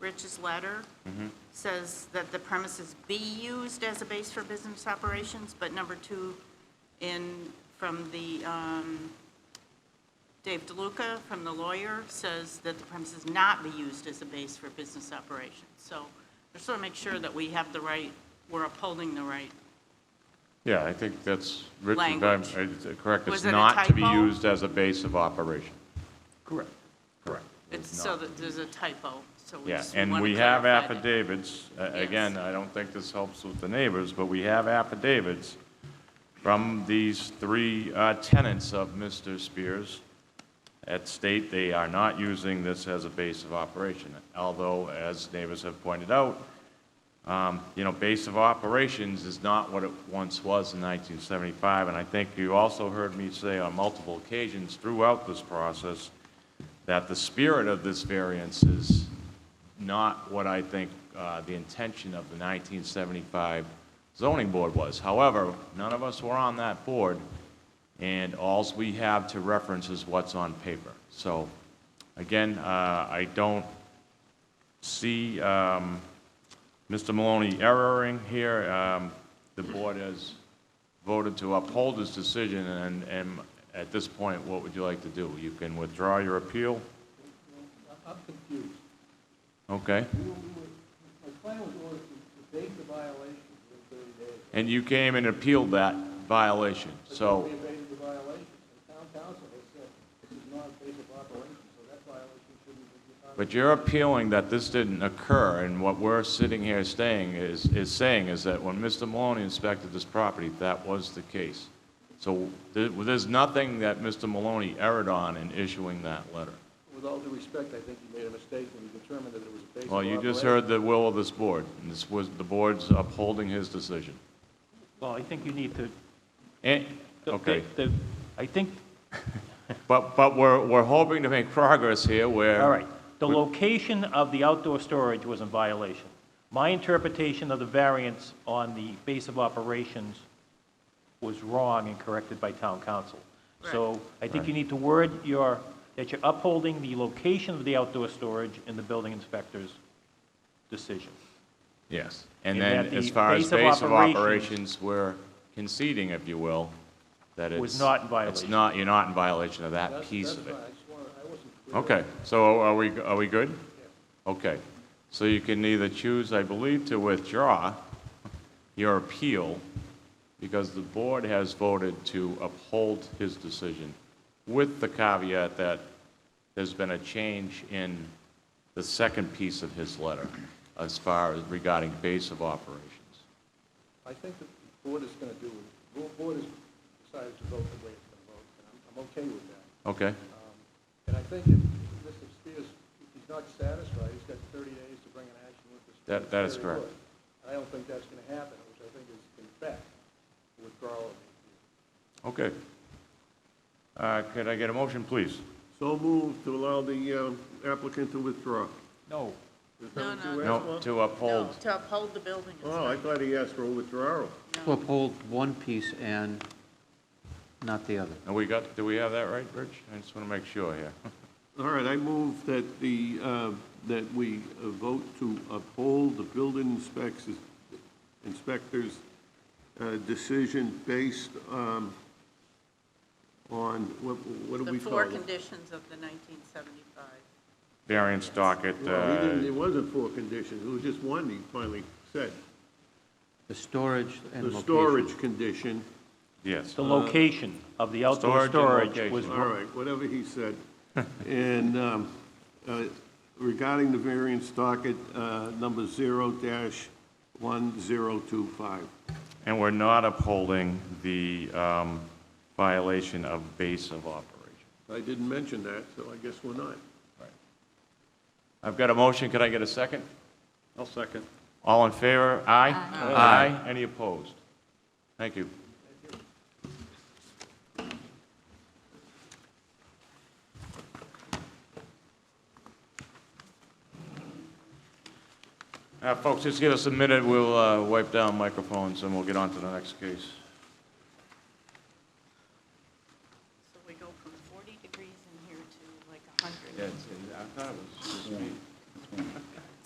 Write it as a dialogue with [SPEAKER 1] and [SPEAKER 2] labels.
[SPEAKER 1] Rich's letter says that the premises be used as a base for business operations, but number two in, from the, um, Dave DeLuca, from the lawyer, says that the premises not be used as a base for business operations. So just want to make sure that we have the right, we're upholding the right.
[SPEAKER 2] Yeah, I think that's written, down-
[SPEAKER 1] Language.
[SPEAKER 2] it's correct,
[SPEAKER 1] Was
[SPEAKER 2] it's
[SPEAKER 1] it a
[SPEAKER 2] not to be
[SPEAKER 1] typo?
[SPEAKER 2] used as a base of operation. Correct. Correct.
[SPEAKER 1] It's so that there's a typo, so we
[SPEAKER 2] Yeah,
[SPEAKER 1] just
[SPEAKER 2] and
[SPEAKER 1] want to
[SPEAKER 2] we have
[SPEAKER 1] clarify that.
[SPEAKER 2] affidavits, a- again,
[SPEAKER 1] Yes.
[SPEAKER 2] I don't think this helps with the neighbors, but we have affidavits from these three uh, tenants of Mr. Spears at state they are not using this as a base of operation, although, as neighbors have pointed out, um, you know, base of operations is not what it once was in 1975, and I think you also heard me say on multiple occasions throughout this process that the spirit of this variance is not what I think uh, the intention of the 1975 zoning board was. However, none of us were on that board, and alls we have to reference is what's on paper. So, again, uh, I don't see um, Mr. Maloney erroring here. Um, The board has voted to uphold this decision, and, and at this point, what would you like to do? You can withdraw your appeal?
[SPEAKER 3] I'm confused.
[SPEAKER 2] Okay.
[SPEAKER 3] We were- we were- My plan was always to to bake the violation within 30 days.
[SPEAKER 2] And you came and appealed that violation,
[SPEAKER 3] But
[SPEAKER 2] so,
[SPEAKER 3] We abated the violation. The town council has said this is not a basic operation, so that violation shouldn't be.
[SPEAKER 2] but you're appealing that this didn't occur, and what we're sitting here staying is, is saying is that when Mr. Maloney inspected this property, that was the case. So there- there's nothing that Mr. Maloney erred on in issuing that letter.
[SPEAKER 3] With all due respect, I think you made a mistake when you determined that it was a basic
[SPEAKER 2] Well, you just heard the will of this board, and this was, the board's upholding his decision.
[SPEAKER 4] Well, I think you need to.
[SPEAKER 2] And,
[SPEAKER 4] the-
[SPEAKER 2] okay,
[SPEAKER 4] the- I think,
[SPEAKER 2] but, but we're, we're hoping to make progress here where.
[SPEAKER 4] all right, the location of the outdoor storage was in violation. My interpretation of the variance on the base of operations was wrong and corrected by town council. So I think you need to word your, that you're upholding the location of the outdoor storage in the building inspector's decision.
[SPEAKER 2] Yes, and
[SPEAKER 4] And
[SPEAKER 2] then
[SPEAKER 4] that the
[SPEAKER 2] as far as
[SPEAKER 4] base of
[SPEAKER 2] base of
[SPEAKER 4] operations-
[SPEAKER 2] operations, we're conceding, if you will, that it's.
[SPEAKER 4] Was not in
[SPEAKER 2] It's
[SPEAKER 4] violation.
[SPEAKER 2] not, you're not in violation of that
[SPEAKER 3] That's
[SPEAKER 2] piece
[SPEAKER 3] that's
[SPEAKER 2] of
[SPEAKER 3] fine.
[SPEAKER 2] it.
[SPEAKER 3] I just wanted, I wasn't clear.
[SPEAKER 2] Okay, so are we, are we good? Okay, so you can either choose, I believe, to withdraw your appeal, because the board has voted to uphold his decision, with the caveat that there's been a change in the second piece of his letter, as far as regarding base of operations.
[SPEAKER 3] I think that the board is going to do, the board has decided to vote the way it's going to vote, and I'm- I'm okay with that.
[SPEAKER 2] Okay,
[SPEAKER 3] Um, And I think if Mr. Spears, if he's not satisfied, he's got 30 days to bring an action with the...
[SPEAKER 2] That- that is
[SPEAKER 3] Superior
[SPEAKER 2] correct.
[SPEAKER 3] Court. And I don't think that's going to happen, which I think is, in fact, withdrawal of the...
[SPEAKER 2] okay. Uh, Could I get a motion, please?
[SPEAKER 5] So moved to allow the um, applicant to withdraw.
[SPEAKER 4] No.
[SPEAKER 5] Is that what
[SPEAKER 1] No,
[SPEAKER 5] you asked
[SPEAKER 2] No,
[SPEAKER 5] for?
[SPEAKER 2] to uphold.
[SPEAKER 1] No, To uphold the building
[SPEAKER 5] Oh, I
[SPEAKER 1] inspector.
[SPEAKER 5] thought he asked for a withdrawal.
[SPEAKER 6] To uphold one piece and not the other.
[SPEAKER 2] And we got, do we have that right, Rich? I just want to make sure here.
[SPEAKER 5] All right, I move that the, uh, that we uh, vote to uphold the building inspects, inspector's uh, decision based um, on, what, what do
[SPEAKER 1] The
[SPEAKER 5] we call
[SPEAKER 1] four
[SPEAKER 5] it?
[SPEAKER 1] conditions of the 1975.
[SPEAKER 2] Variance docket,
[SPEAKER 5] Well, he didn't,
[SPEAKER 2] uh,
[SPEAKER 5] it wasn't four conditions, it was just one he finally said.
[SPEAKER 6] The storage and
[SPEAKER 5] The
[SPEAKER 6] location.
[SPEAKER 5] storage condition,
[SPEAKER 2] yes.
[SPEAKER 4] The location of the outdoor
[SPEAKER 2] Uh, Storage and
[SPEAKER 4] storage was
[SPEAKER 2] location.
[SPEAKER 5] All right, whatever he said. And um, uh, regarding the variance docket, uh, number 0-1025.
[SPEAKER 2] And we're not upholding the um, violation of base of operation.
[SPEAKER 5] I didn't mention that, so I guess we're not.
[SPEAKER 2] I've got a motion, could I get a second?
[SPEAKER 5] I'll second.
[SPEAKER 2] All in favor? Aye? Aye. Any opposed? Thank you. Uh, Folks, just give us a minute, we'll uh, wipe down microphones and we'll get on to the next case.